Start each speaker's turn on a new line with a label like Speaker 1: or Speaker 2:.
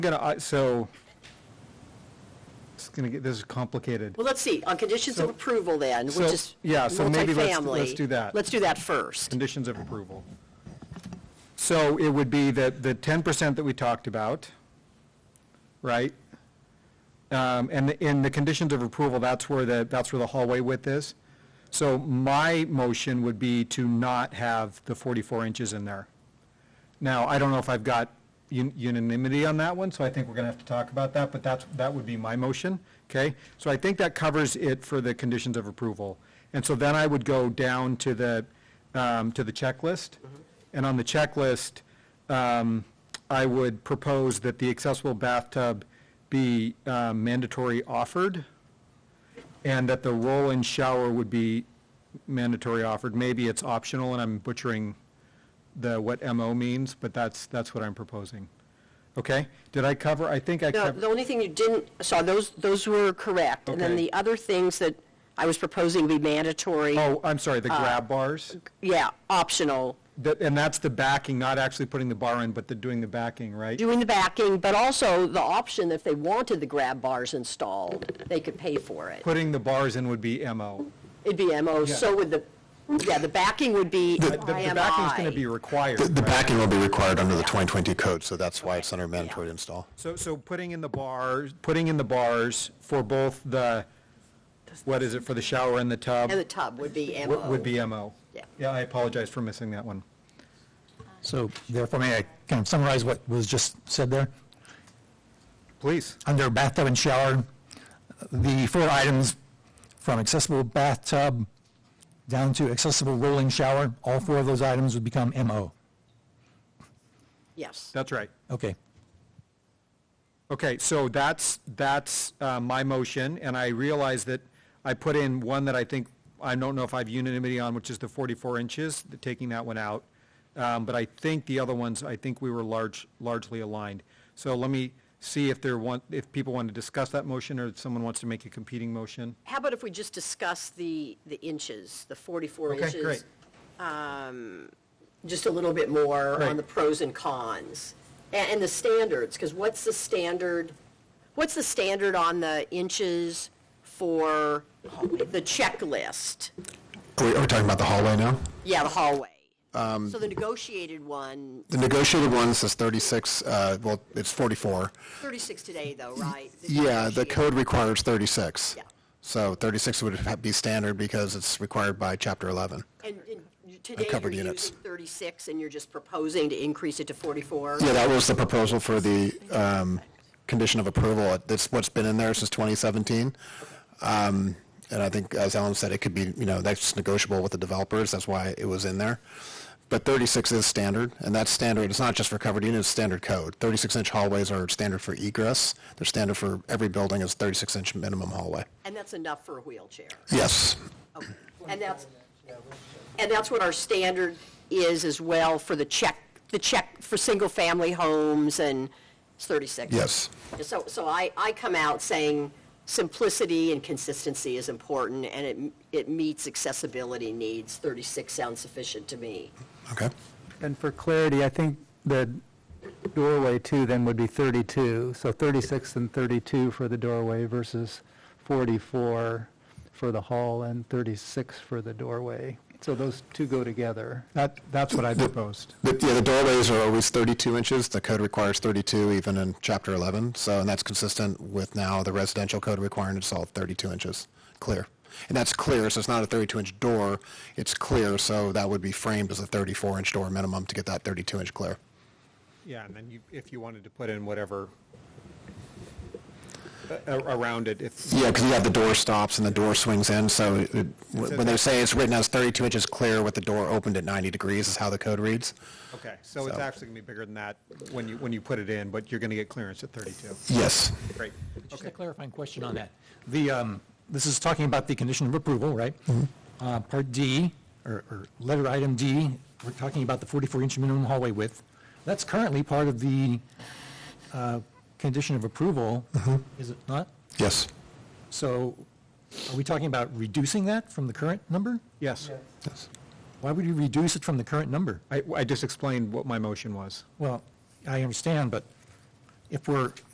Speaker 1: gonna, I- so, it's gonna get, this is complicated.
Speaker 2: Well, let's see, on conditions of
Speaker 1: So-
Speaker 2: approval then,
Speaker 1: so,
Speaker 2: which is
Speaker 1: yeah, so maybe let's- let's
Speaker 2: multifamily.
Speaker 1: do that.
Speaker 2: Let's do that first.
Speaker 1: Conditions of approval. So it would be that the ten percent that we talked about, right? Um, and the- in the conditions of approval, that's where the, that's where the hallway width is. So my motion would be to not have the forty-four inches in there. Now, I don't know if I've got un- unanimity on that one, so I think we're gonna have to talk about that, but that's, that would be my motion, okay? So I think that covers it for the conditions of approval. And so then I would go down to the, um, to the checklist. And on the checklist, um, I would propose that the accessible bathtub be uh, mandatory offered, and that the roll-in shower would be mandatory offered. Maybe it's optional, and I'm butchering the, what MO means, but that's, that's what I'm proposing. Okay? Did I cover, I think I
Speaker 2: No, the
Speaker 1: covered,
Speaker 2: only thing you didn't, so those, those were correct. And then
Speaker 1: Okay.
Speaker 2: the other things that I was proposing be mandatory,
Speaker 1: oh, I'm sorry, the grab bars?
Speaker 2: yeah, optional,
Speaker 1: That- And that's the backing, not actually putting the bar in, but the, doing the backing, right?
Speaker 2: doing the backing, but also the option, if they wanted the grab bars installed, they could pay for it.
Speaker 1: Putting the bars in would be MO.
Speaker 2: It'd be MO, so would the, yeah, the backing would be
Speaker 1: Uh, The- The the backing's going to be
Speaker 2: IMI.
Speaker 1: required,
Speaker 3: The- The
Speaker 1: right?
Speaker 3: backing will be required under the 2022 code, so that's why it's under mandatory install.
Speaker 1: So, so putting in the bars, putting in the bars for both the, what is it, for the shower and the tub
Speaker 2: And the tub would be
Speaker 1: would
Speaker 2: MO.
Speaker 1: would be MO.
Speaker 2: Yeah.
Speaker 1: Yeah, I apologize for missing that one.
Speaker 4: So therefore, may I kind of summarize what was just said there?
Speaker 1: Please.
Speaker 4: Under bathtub and shower, the four items from accessible bathtub down to accessible rolling shower, all four of those items would become MO.
Speaker 2: Yes.
Speaker 1: That's right.
Speaker 4: Okay.
Speaker 1: Okay, so that's, that's uh, my motion, and I realize that I put in one that I think, I don't know if I have unanimity on, which is the 44 inches, the- taking that one out. Um, But I think the other ones, I think we were large, largely aligned. So let me see if there want, if people want to discuss that motion, or if someone wants to make a competing motion.
Speaker 2: How about if we just discuss the, the inches, the 44
Speaker 1: Okay,
Speaker 2: inches?
Speaker 1: great.
Speaker 2: Just a little bit more
Speaker 1: Great.
Speaker 2: on the pros and cons, A- and the standards, because what's the standard, what's the standard on the inches for the checklist?
Speaker 3: Are we, are we talking about the hallway now?
Speaker 2: Yeah, the hallway.
Speaker 3: Um,
Speaker 2: So the negotiated one,
Speaker 3: The negotiated one says 36, uh, well, it's 44.
Speaker 2: 36 today though, right?
Speaker 3: Yeah, the
Speaker 2: negotiated.
Speaker 3: code requires 36.
Speaker 2: Yeah.
Speaker 3: So 36 would ha- be standard because it's required by Chapter 11.
Speaker 2: And and you- today
Speaker 3: covered
Speaker 2: you're
Speaker 3: units.
Speaker 2: using 36, and you're just proposing to increase it to 44?
Speaker 3: Yeah, that was the proposal for the um, condition of approval. That's what's been in there since 2017. Um, And I think, as Ellen said, it could be, you know, that's negotiable with the developers, that's why it was in there. But 36 is standard, and that's standard, it's not just for covered units, it's standard code. 36-inch hallways are standard for egress, they're standard for every building is 36-inch minimum hallway.
Speaker 2: And that's enough for a wheelchair?
Speaker 3: Yes,
Speaker 2: And that's, and that's what our standard is as well for the check, the check for single-family homes and it's 36.
Speaker 3: yes.
Speaker 2: So, so I, I come out saying simplicity and consistency is important and it, it meets accessibility needs. 36 sounds sufficient to me.
Speaker 3: Okay,
Speaker 5: And for clarity, I think the doorway too then would be 32, so 36 and 32 for the doorway versus 44 for the hall and 36 for the doorway. So those two go together.
Speaker 1: That, that's what I proposed.
Speaker 3: But, yeah, the doorways are always 32 inches, the code requires 32 even in Chapter 11, so, and that's consistent with now the residential code requiring it's all 32 inches, clear. And that's clear, so it's not a 32-inch door, it's clear, so that would be framed as a 34-inch door minimum to get that 32-inch clear.
Speaker 1: Yeah, and then you, if you wanted to put in whatever uh, a- around it, if,
Speaker 3: Yeah, because you have the door stops and the door swings in, so it- it-
Speaker 1: says
Speaker 3: when they say it's written as 32 inches clear with the door opened at 90 degrees is how the code reads.
Speaker 1: okay, so it's
Speaker 3: So-
Speaker 1: actually going to be bigger than that when you, when you put it in, but you're going to get clearance at 32.
Speaker 3: Yes.
Speaker 1: Great.
Speaker 4: Just a clarifying question on that. The, um, this is talking about the condition of approval, right? Uh, Part D, or or letter item D, we're talking about the 44-inch minimum hallway width. That's currently part of the uh, condition of approval, is it not?
Speaker 3: Yes.
Speaker 4: So are we talking about reducing that from the current number?
Speaker 1: Yes.
Speaker 3: Yes.
Speaker 4: Why would you reduce it from the current number?
Speaker 1: I, I just explained what my motion was.
Speaker 4: Well, I understand, but if we're